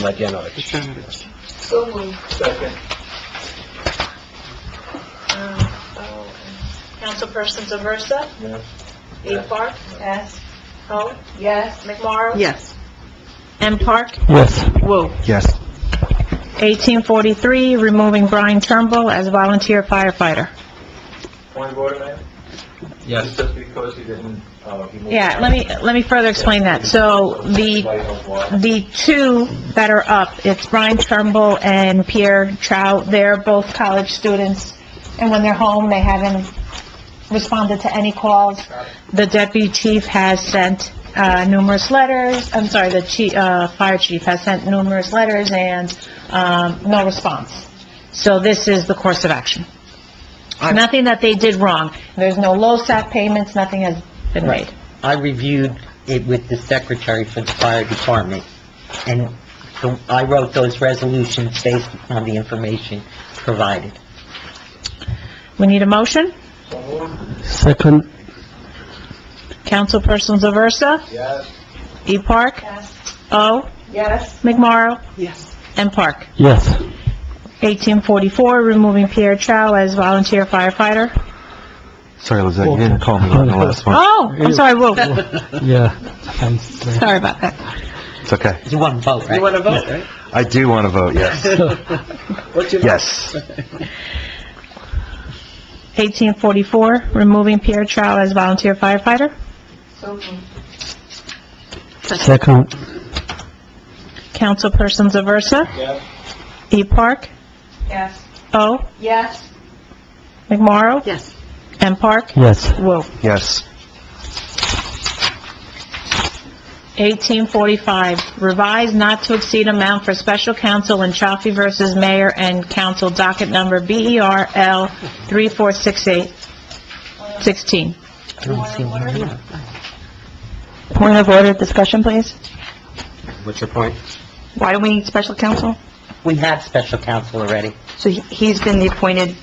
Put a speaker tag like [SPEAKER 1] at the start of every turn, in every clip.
[SPEAKER 1] like Yanoich.
[SPEAKER 2] Determinants.
[SPEAKER 3] So moved.
[SPEAKER 4] Second.
[SPEAKER 3] Councilperson Aversa?
[SPEAKER 4] Yes.
[SPEAKER 3] A. Park? Yes. Ho? Yes. McMorro?
[SPEAKER 5] Yes.
[SPEAKER 3] M. Park?
[SPEAKER 1] Yes.
[SPEAKER 5] Whoa.
[SPEAKER 1] Yes.
[SPEAKER 3] 1843, removing Brian Turnbull as volunteer firefighter.
[SPEAKER 4] Point of order, ma'am?
[SPEAKER 1] Yes.
[SPEAKER 4] Just because he didn't, uh, he moved.
[SPEAKER 3] Yeah, let me, let me further explain that. So the,
[SPEAKER 4] Light of why.
[SPEAKER 3] the two that are up, it's Brian Turnbull and Pierre Trout. They're both college students, and when they're home, they haven't responded to any calls. The deputy chief has sent uh, numerous letters, I'm sorry, the chief, uh, fire chief has sent numerous letters and, um, no response. So this is the course of action.
[SPEAKER 5] I-
[SPEAKER 3] Nothing that they did wrong. There's no LoSAP payments, nothing has been made.
[SPEAKER 6] I reviewed it with the secretary for the fire department, and the- I wrote those resolutions based on the information provided.
[SPEAKER 3] We need a motion?
[SPEAKER 4] So moved.
[SPEAKER 1] Second.
[SPEAKER 3] Councilperson Zaversa?
[SPEAKER 4] Yes.
[SPEAKER 3] E. Park? Yes. O.
[SPEAKER 5] Yes.
[SPEAKER 3] McMorro?
[SPEAKER 5] Yes.
[SPEAKER 3] And Park.
[SPEAKER 1] Yes.
[SPEAKER 3] 1844, removing Pierre Chow as volunteer firefighter.
[SPEAKER 2] Sorry, Lizette, you didn't call me on the last one.
[SPEAKER 3] Oh, I'm sorry, whoa,
[SPEAKER 1] Yeah.
[SPEAKER 3] sorry about that.
[SPEAKER 2] It's okay.
[SPEAKER 6] You want to vote, right?
[SPEAKER 1] to vote, right?
[SPEAKER 2] I do want to vote yes.
[SPEAKER 1] What's your...
[SPEAKER 2] Yes.
[SPEAKER 3] 1844, removing Pierre Chow as volunteer firefighter.
[SPEAKER 5] So moved.
[SPEAKER 1] Second.
[SPEAKER 3] Councilperson Zaversa?
[SPEAKER 4] Yes.
[SPEAKER 3] E. Park?
[SPEAKER 5] Yes.
[SPEAKER 3] O.
[SPEAKER 5] Yes.
[SPEAKER 3] McMorro?
[SPEAKER 5] Yes.
[SPEAKER 3] And Park?
[SPEAKER 1] Yes.
[SPEAKER 3] Whoa.
[SPEAKER 2] Yes.
[SPEAKER 3] 1845, revised not to exceed amount for special counsel in Chaffee versus Mayor and Council docket number E BERL 3468-16.
[SPEAKER 6] I don't see why not.
[SPEAKER 3] Point of order, discussion, please.
[SPEAKER 6] What's your point?
[SPEAKER 5] Why do we need special counsel?
[SPEAKER 6] We had special counsel already.
[SPEAKER 5] So he- he's been the appointed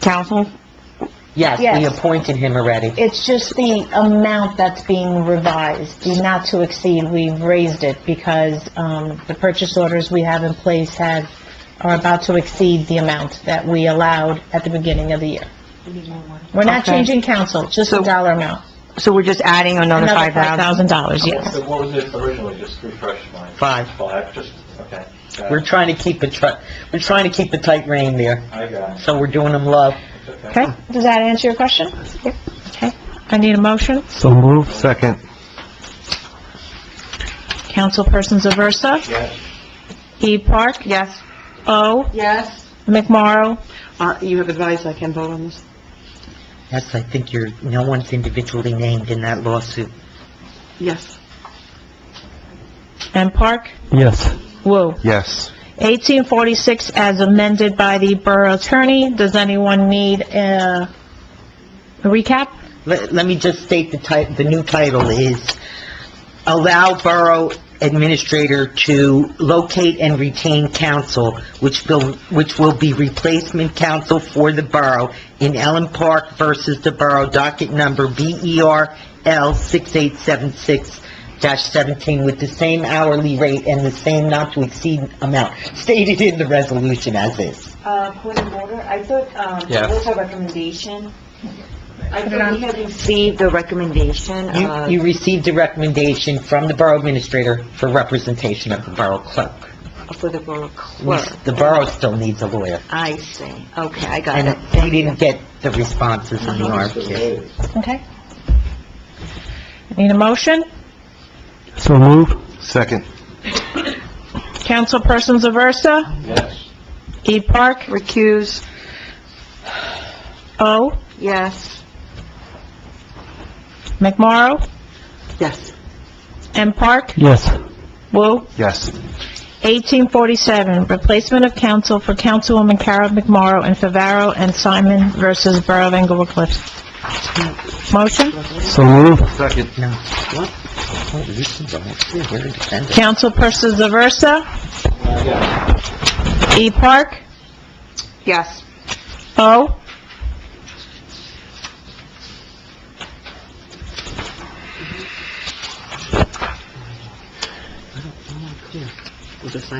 [SPEAKER 5] counsel?
[SPEAKER 6] Yes, we
[SPEAKER 3] Yes.
[SPEAKER 6] appointed him already.
[SPEAKER 3] It's just the amount that's being revised, the not to exceed, we've raised it because um, the purchase orders we have in place have, are about to exceed the amount that we allowed at the beginning of the year. We're not
[SPEAKER 5] Okay.
[SPEAKER 3] changing council, just the
[SPEAKER 5] So-
[SPEAKER 3] dollar amount.
[SPEAKER 5] So we're just adding another
[SPEAKER 3] Another
[SPEAKER 5] five thousand?
[SPEAKER 3] $5,000, yes.
[SPEAKER 4] So what was it originally, just refresh my.
[SPEAKER 6] Five.
[SPEAKER 4] Five, just, okay. Got
[SPEAKER 6] We're
[SPEAKER 4] it.
[SPEAKER 6] trying to keep a tr, we're trying to keep a tight rein there,
[SPEAKER 4] I got it.
[SPEAKER 6] so we're doing them low.
[SPEAKER 4] It's okay.
[SPEAKER 3] Okay, does that answer your question? Okay, I need a motion.
[SPEAKER 1] So move.
[SPEAKER 2] Second.
[SPEAKER 3] Councilperson Zaversa?
[SPEAKER 4] Yes.
[SPEAKER 3] E. Park?
[SPEAKER 5] Yes.
[SPEAKER 3] O.
[SPEAKER 5] Yes.
[SPEAKER 3] McMorro?
[SPEAKER 5] Uh, you have advised I can vote on this?
[SPEAKER 6] Yes, I think you're, no one's individually named in that lawsuit.
[SPEAKER 5] Yes.
[SPEAKER 3] And Park?
[SPEAKER 1] Yes.
[SPEAKER 3] Woo.
[SPEAKER 2] Yes.
[SPEAKER 3] 1846 as amended by the borough attorney. Does anyone need uh, a recap?
[SPEAKER 6] Let, let me just state the ti, the new title is Allow Borough Administrator to Locate and Retain Council, which will, which will be replacement council for the borough in Ellen Park versus the borough, docket number E BERL 6876-17, with the same hourly rate and the same not to exceed amount stated in the resolution as is.
[SPEAKER 7] Uh, point of order, I thought, um,
[SPEAKER 1] Yes.
[SPEAKER 7] what was our recommendation? I thought we had received the recommendation,
[SPEAKER 6] You,
[SPEAKER 7] uh,
[SPEAKER 6] you received a recommendation from the Borough Administrator for representation of the Borough Clerk.
[SPEAKER 7] for the borough clerk.
[SPEAKER 6] The borough still needs a lawyer,
[SPEAKER 7] I see, okay, I got it.
[SPEAKER 6] and we didn't get the responses on the RFQ.
[SPEAKER 3] Okay. Need a motion?
[SPEAKER 1] So move.
[SPEAKER 2] Second.
[SPEAKER 3] Councilperson Zaversa?
[SPEAKER 4] Yes.
[SPEAKER 3] E. Park?
[SPEAKER 5] Recuse?
[SPEAKER 3] O.
[SPEAKER 7] Yes,
[SPEAKER 3] McMorro?
[SPEAKER 5] Yes.
[SPEAKER 3] M. Park?
[SPEAKER 1] Yes.
[SPEAKER 3] Woo.
[SPEAKER 2] Yes.
[SPEAKER 3] 1847, replacement of council for Councilwoman Carol McMorro and Favaro and Simon versus Borough of Englewood Cliffs. Motion?
[SPEAKER 1] So move.
[SPEAKER 2] Second.
[SPEAKER 6] No. What? Oh, this is all- we're independent.
[SPEAKER 3] Councilperson Zaversa?
[SPEAKER 4] Yes.
[SPEAKER 3] E. Park?
[SPEAKER 5] Yes.
[SPEAKER 3] O.
[SPEAKER 6] We'll decide